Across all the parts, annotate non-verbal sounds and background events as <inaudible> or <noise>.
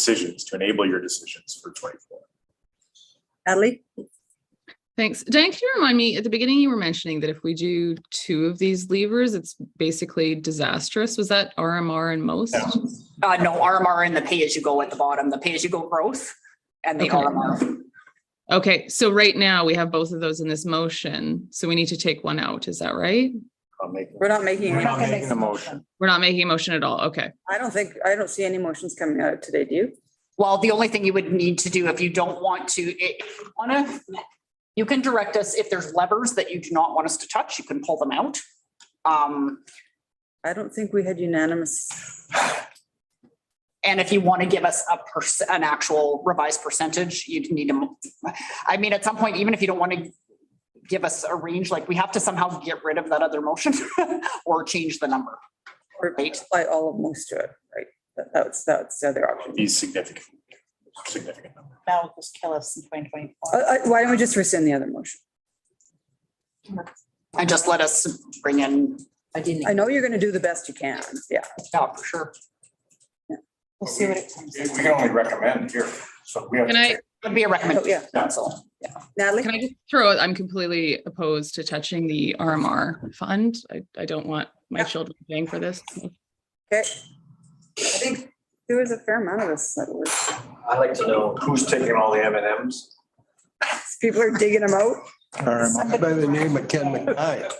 decisions, to enable your decisions for twenty-four. Natalie? Thanks. Diane, can you remind me, at the beginning, you were mentioning that if we do two of these levers, it's basically disastrous. Was that RMR and most? Yeah. Uh, no, RMR and the pay-as-you-go at the bottom, the pay-as-you-go growth and the Okay. RMR. Okay, so right now we have both of those in this motion, so we need to take one out. Is that right? I'll make- We're not making, We're any- not making a motion. We're not making a motion at all. Okay. I don't think, I don't see any motions coming out today, do you? Well, the only thing you would need to do if you don't want to, it, wanna, you can direct us, if there's levers that you do not want us to touch, you can pull them out. Um, I don't think we had unanimous. and if you want to give us a person, an actual revised percentage, you'd need to. mo- I mean, at some point, even if you don't want to give us a range, like we have to somehow get rid of that other motion <laughs> or change the number. or Right. Apply all of most to it, right? That- That's, that's the other option. These significant, significant numbers. That will just kill us in twenty twenty-four. Uh, uh, Why don't we just rescind the other motion? And just let us bring in. I didn't. I know you're going to do the best you can, yeah. Yeah, for sure. We'll see what it comes. We can only recommend here, so we have. Can I, Would be a Oh, recommendation. yeah. Council. Natalie? can I just throw, I'm completely opposed to touching the RMR fund. I, I don't want my Yeah. children paying for this. Okay. I think there was a fair amount of us that were, I'd like to know who's taking all the M and Ms. people are digging them out. By the name of Ken McKnight.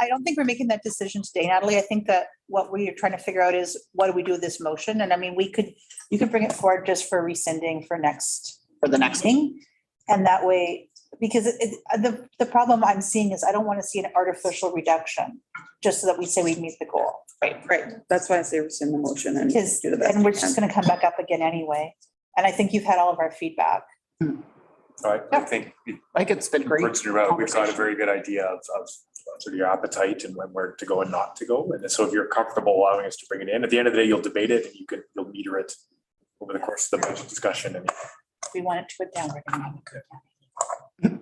I don't think we're making that decision today, Natalie. I think that what we are trying to figure out is what do we do with this motion? And I mean, we could, you could bring it forward just for rescinding for next for the next. meeting. And that way, because it, it- the, the problem I'm seeing is I don't want to see an artificial reduction, just so that we say we meet the goal. Right, that's why I say rescind the motion and Because, do the best. and we're we just can. gonna come back up again anyway. And I think you've had all of our feedback. I I think it Like it's been great. Brooks and Rowell, uh, we've got a conversation. very good idea of, of sort of your appetite and when where to go and not to go. And so if you're comfortable allowing us to bring it in, at the end of the day, you'll debate it and you can, you'll meter it over the course of the budget discussion and We want it to go down. we're gonna have it go down.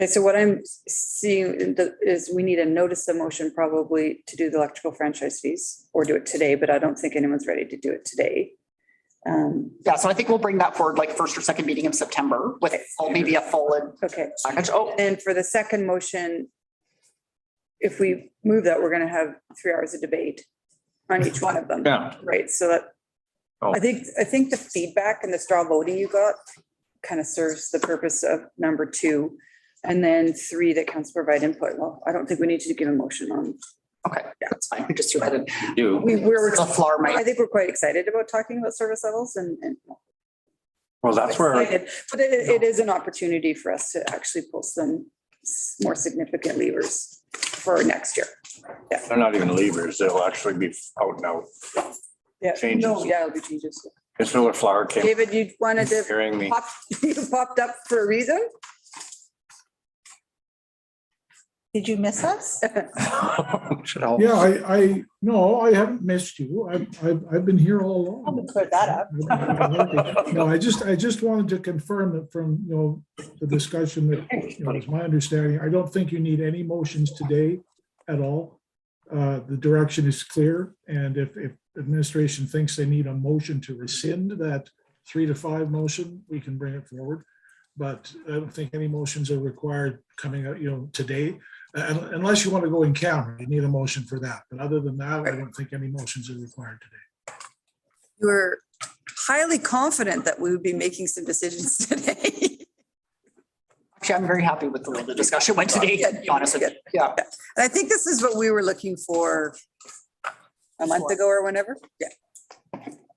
Okay, so what I'm seeing in the- is we need a notice of motion probably to do the electrical franchise fees or do it today, but I don't think anyone's ready to do it today. Um, Yeah, so I think we'll bring that forward like first or second meeting in September with oh, maybe a full Okay, package. Oh, and for the second motion, if we move that, we're going to have three hours of debate on each one of them. Yeah. Right, so that, Oh. I think, I think the feedback and the straw voting you got kind of serves the purpose of number two. And then three, that council provide input. Well, I don't think we need to give a motion on. okay, that's fine. We just do it. You. We, we're, The floor I might. think we're quite excited about talking about service levels and, and. Well, that's where, excited, But it, it is an opportunity for us to actually pull some s- more significant levers for next year. they're not even levers, they'll actually be out and out. Yeah. Changes. No, Yeah, it'll be changes. Miss Miller Flower came David, you wanted to hearing me. pop, <laughs> you popped up for a reason? Did you miss us? Should help. Yeah, I, I, no, I haven't missed you. I've, I've, I've been here all I'm gonna along. clear that up. <laughs> No, I just, I just wanted to confirm that from, you know, the discussion that, you know, it's my understanding, I don't think you need any motions today at all. Uh, the direction is clear, and if, if administration thinks they need a motion to rescind that three to five motion, we can bring it forward. But I don't think any motions are required coming out, you know, today. Uh, un- Unless you want to go in camera, you need a motion for that. But other than that, I don't think any motions are required today. You were highly confident that we would be making some decisions <laughs> today. Actually, I'm very happy with the way the discussion went today, to be honest with you. Yeah. And I think this is what we were looking for a month ago or whenever. Yeah.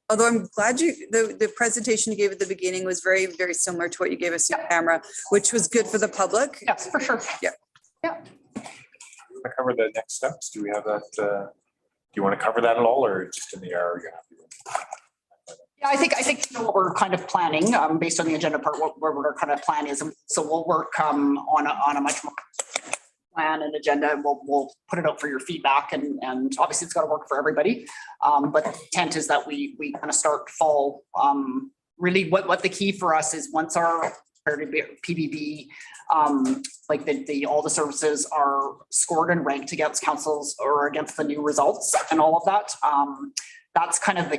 Although I'm glad you, the, the presentation you gave at the beginning was very, very similar to what you gave us in camera, which was good for the public. Yes, for sure. to cover the next steps, do we have that, uh, do you want to cover that at all or just in the air? are you happy with it? Yeah, I think, I think you know, what we're kind of planning, um, based on the agenda part, what, where our kind of plan is. And So we'll work, um, on a, on a much more plan and agenda. and We'll, we'll put it out for your feedback and, and obviously it's got to work for everybody. Um, but the intent is that we, we kind of start fall, um, really what, what the key for us is once our PBB, um, like the, the, all the services are scored and ranked against councils or against the new results and all of that. Um, that's kind of the